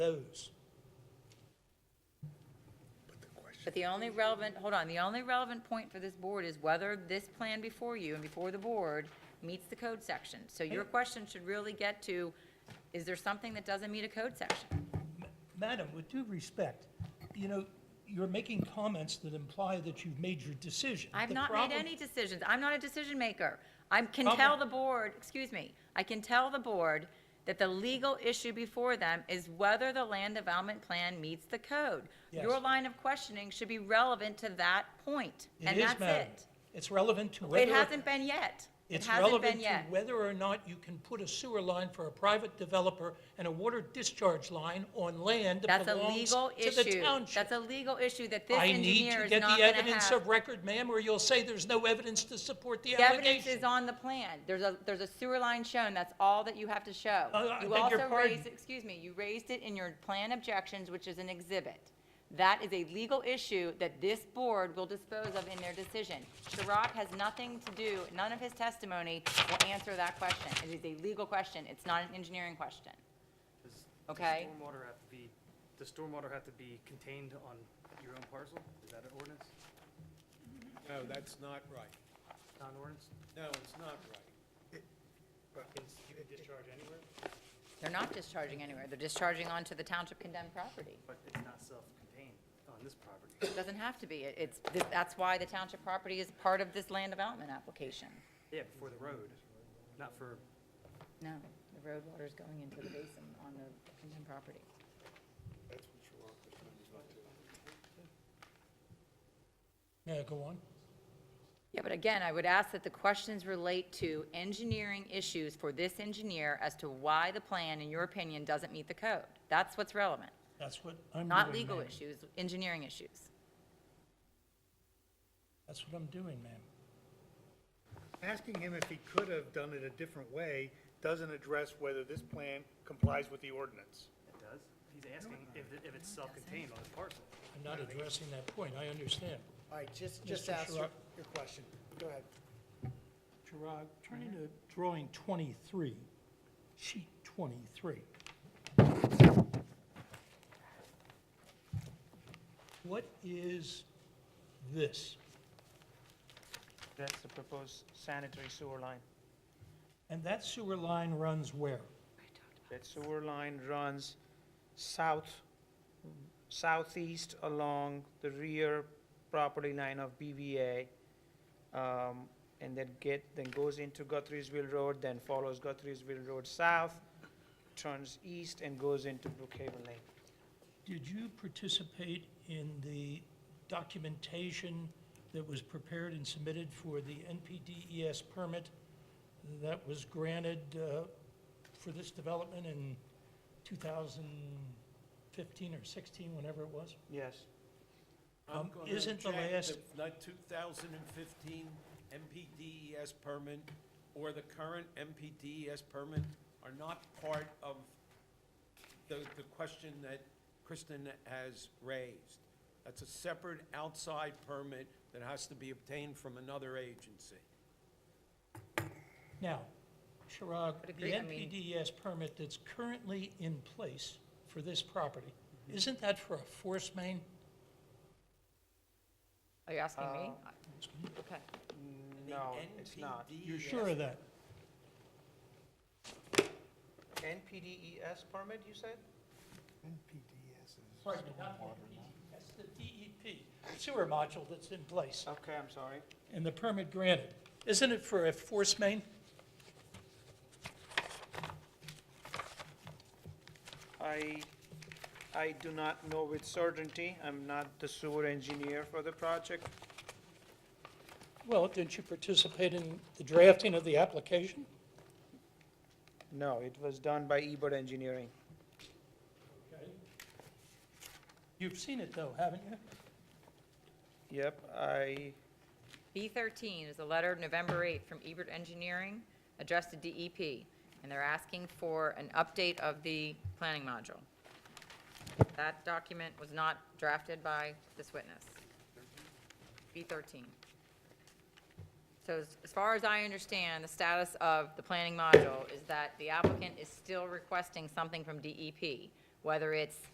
those. But the only relevant, hold on, the only relevant point for this board is whether this plan before you and before the board meets the code section. So your question should really get to, is there something that doesn't meet a code section? Ma- Madam, with due respect, you know, you're making comments that imply that you've made your decision. I've The not made problem- any decisions. I'm not a decision maker. I can Problem- tell the board, excuse me, I can tell the board that the legal issue before them is whether the land development plan meets the code. Your Yes. line of questioning should be relevant to that point, It and is, that's madam. it. It's relevant to It whether. hasn't been yet. It It's hasn't relevant been to yet. whether or not you can put a sewer line for a private developer and a water discharge line on land that That's a belongs legal to the issue. township. That's a legal issue that this I need engineer to is get not the going to evidence of have. record, ma'am, or you'll say there's no evidence to support the The evidence allegation. is on the plan. There's a, there's a sewer line shown. That's all that you have to show. Uh, I You beg your also pardon. raised, excuse me, you raised it in your plan objections, which is an exhibit. That is a legal issue that this board will dispose of in their decision. Sharrock has nothing to do, none of his testimony will answer that question. It is a legal question. It's not an engineering question. Does does Okay. stormwater have to be, does stormwater have to be contained on your own parcel? Is that an ordinance? No, that's not right. Not an ordinance? No, it's not right. You can discharge anywhere, They're not discharging anywhere. They're discharging onto the township condemned property. but it's not self-contained on this property. It Doesn't have to be. It- It's, this- that's why the township property is part of this land development application. Yeah, for the road, not for, No, the road water is going into the basin on the condemned property. Yeah, go on. Yeah, but again, I would ask that the questions relate to engineering issues for this engineer as to why the plan, in your opinion, doesn't meet the code. That's what's relevant, That's what I'm doing. not legal ma'am. issues, engineering issues. That's what I'm doing, ma'am. Asking him if he could have done it a different way doesn't address whether this plan complies with the ordinance. it does? He's asking if, it- if it's self-contained on his parcel. I'm not addressing that point. I understand. All right, just, just Mr. ask your, Sherrod. your question. Go ahead. Gerard, turn to drawing 23, sheet 23. What is this? That's the proposed sanitary sewer line. And that sewer line runs where? That sewer line runs south, southeast along the rear property line of BVA, um, and then get, then goes into Guthrie'sville Road, then follows Guthrie'sville Road south, turns east and goes into Brookhaven Lane. Did you participate in the documentation that was prepared and submitted for the NPDES E permit that was granted uh, for this development in 2015 or 16, whenever it was? Yes. I'm Um, gonna isn't the check last- Not 2015 MPDES E permit or the current MPDES E permit are not part of the, the question that Kristen has raised. That's a separate outside permit that has to be obtained from another agency. Now, Chirag, But the agree- I mean- NPDES E permit that's currently in place for this property, isn't that for a force main? Are you asking me? Okay. No, it's not. E You're sure of that? NPDES E permit, you said? Pardon me, not NPDES, that's E the DEP sewer module that's in place Okay, I'm sorry. and the permit granted. Isn't it for a force main? I, I do not know with certainty. I'm not the sewer engineer for the project. Well, didn't you participate in the drafting of the application? No, it was done by Ebert Engineering. You've seen it though, haven't you? Yep, I, B13 is a letter of November 8th from Ebert Engineering addressed to DEP, and they're asking for an update of the planning module. That document was not drafted by this witness. B13. So as- as far as I understand, the status of the planning module is that the applicant is still requesting something from DEP. whether it's